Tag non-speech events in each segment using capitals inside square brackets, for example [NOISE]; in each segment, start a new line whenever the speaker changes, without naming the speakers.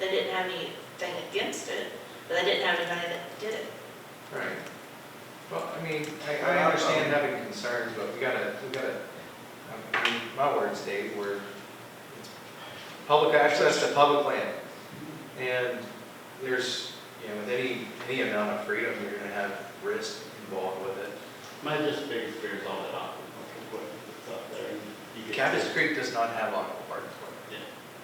have anything against it, but they didn't have anybody that did it.
Right. Well, I mean, I, I understand having concerns, but we gotta, we gotta, I mean, my words, Dave, were it's public access to public land. And there's, you know, with any, any amount of freedom, you're gonna have risk involved with it.
My just big fear is all that aquaculture equipment that's up there. and you get
Cactus
kids-
Creek does not have aquaparks. parks.
Yeah.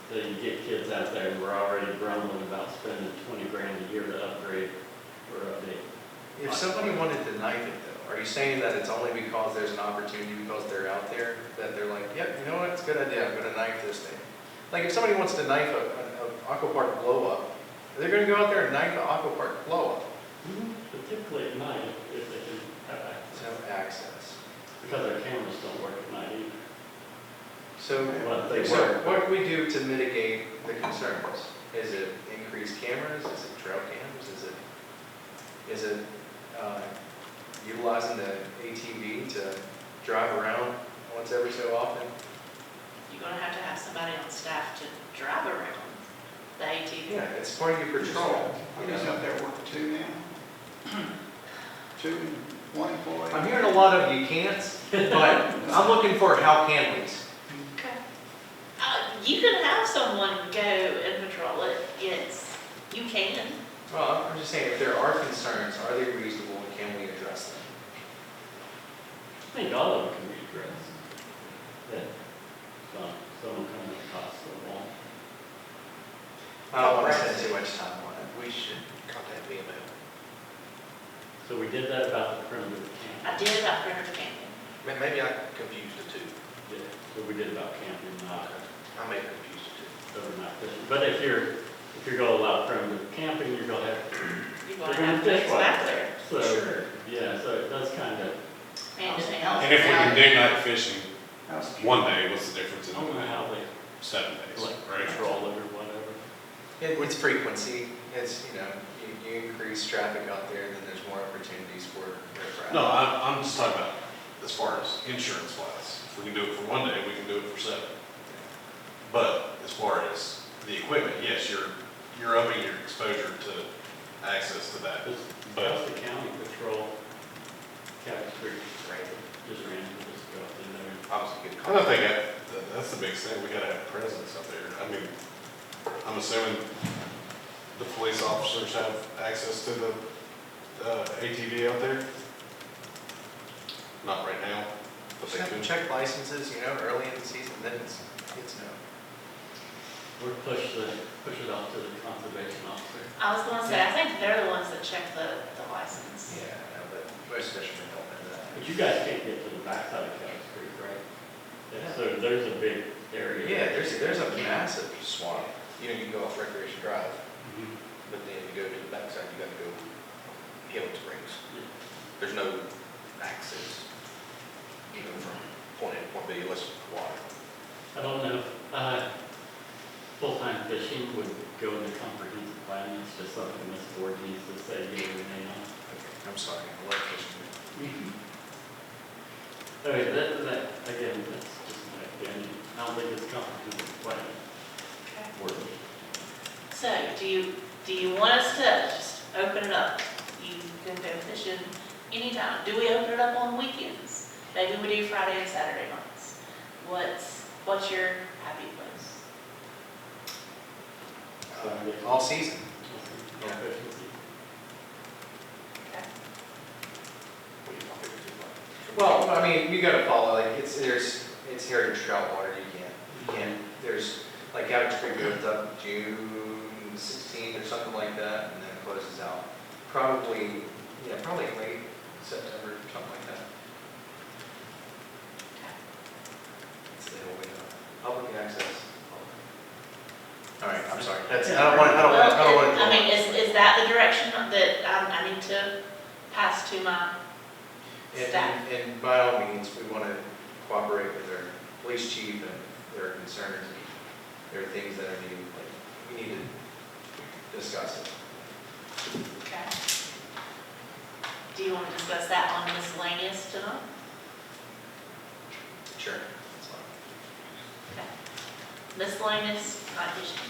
So you get kids out there who are already grumbling about spending twenty grand a year to upgrade or update.
If somebody wanted to knife it though, are you saying that it's only because there's an opportunity, because they're out there, that they're like, yep, you know what, it's a good idea, I'm gonna knife this thing? Like if somebody wants to knife a, a, a aquapark blow up, they're gonna go out there and knife an aquapark blow up,
Mm-hmm. Particularly at night, if they can have
it's
access,
no access.
because their cameras don't work at night either.
So,
But they
so
work.
what do we do to mitigate the concerns? Is it increased cameras, is it trail cams, is it, is it, uh, utilizing the ATV to drive around once every so often?
You're gonna have to have somebody on staff to drive around the ATV.
Yeah, it's part of your patrol.
I'm just up there working two now. [CLEARS THROAT] Two, one employee.
I'm hearing a lot of you can'ts, but I'm looking for how can we's.
Okay. Uh, you can have someone go and patrol it, yes, you can.
Well, I'm just saying, if there are concerns, are they reasonable and can we address them?
I think all of them can be addressed. That some, someone coming across the wall.
I don't want to spend too much time on it. We should contact VML.
So we did that about the perimeter camp.
I did it up Printer Canyon.
Maybe I confused the two.
Yeah, So we did about camping, not
I may confuse the two.
overnight fishing. But if you're, if you're gonna allow perimeter camping, you're gonna have,
You're
They're
gonna
gonna
have to
fish like
back there,
so,
Sure.
yeah, so it does kind of,
man, anything else.
And if we can do night fishing
I was-
one day, what's the difference
I
in
don't know how they
seven days,
like
right?
control it or whatever.
It, it's frequency, it's, you know, you, you increase traffic out there, then there's more opportunities for riffraff.
No, I'm, I'm just talking about as far as insurance wise. If we can do it for one day, we can do it for seven. But as far as the equipment, yes, you're, you're upping your exposure to access to that.
Just,
But
just the county patrol, Cabot Creek, just ran into this girl in there.
I don't think that, that- that's the biggest thing, we gotta have presence up there. I mean, I'm assuming the police officers have access to the, uh, ATV out there? Not right now, but they
Check-
could.
Check licenses, you know, early in the season, then it's, it's no.
Or push the, push it off to the conservation officer.
I was gonna say, I think they're the ones that check the, the license.
Yeah, I know, but most fishermen don't know that.
But you guys can't get to the backside of Cabot Creek, right? Yeah, so there's a big area.
Yeah, there's, there's a massive swamp, you know, you can go off Recreation Drive,
Mhm.
but then you go to the backside, you gotta go Hill Springs.
Yeah.
There's no access, you know, from point A to point B unless it's water.
I don't know, if, uh, full-time fishing would go into comprehensive plan, it's just something this board needs to say, yea or nay on.
I'm sorry, I love fishing.
Okay, that, that, again, that's just my opinion, I don't think it's comprehensive plan
Okay.
worthy.
So, do you, do you want us to just open it up? You can go fishing anytime. Do we open it up on weekends? Maybe we do Friday and Saturday nights. What's, what's your happy place?
Uh, All season.
Or efficiency.
Okay.
Well, I mean, you gotta follow, like, it's, there's, it's heritage trout water, you can't, you can't, there's, like, Cabot Creek opens up June sixteenth or something like that, and then closes out, probably, yeah, probably late September, something like that. It's the whole window, public access. All right, I'm sorry, that's, I don't wanna, I don't wanna, I don't wanna.
I mean, is, is that the direction that I, I need to pass to my
And-
staff?
And, and by all means, we want to cooperate with our police chief and their concerns. There are things that are needed, like, we need to discuss it.
Okay. Do you want to discuss that on miscellaneous tonight?
Sure. that's fine.
Miscellaneous, not fishing.